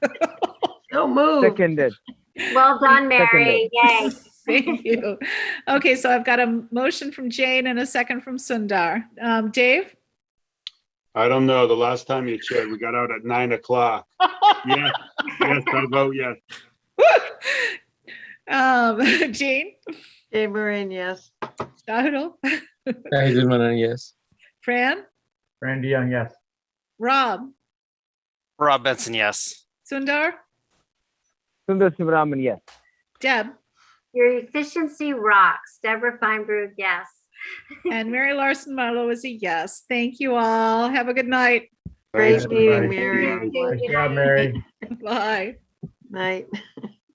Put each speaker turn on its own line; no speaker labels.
moved.
Seconded.
Well done, Mary. Yay.
Thank you. Okay, so I've got a motion from Jane and a second from Sundar. Um, Dave?
I don't know. The last time you checked, we got out at nine o'clock. Yes, yes, I vote yes.
Um, Jane?
Jane Moran, yes.
Shahul?
Diane Moran, yes.
Fran?
Randy Young, yes.
Rob?
Rob Benson, yes.
Sundar?
Sundar Simramani, yes.
Deb?
Your efficiency rocks. Deborah Feinberg, yes.
And Mary Larson Marlowe is a yes. Thank you all. Have a good night.
Great
Thanks,
meeting,
everybody.
Mary.
Thank you.
Nice job, Mary.
Bye.
Night.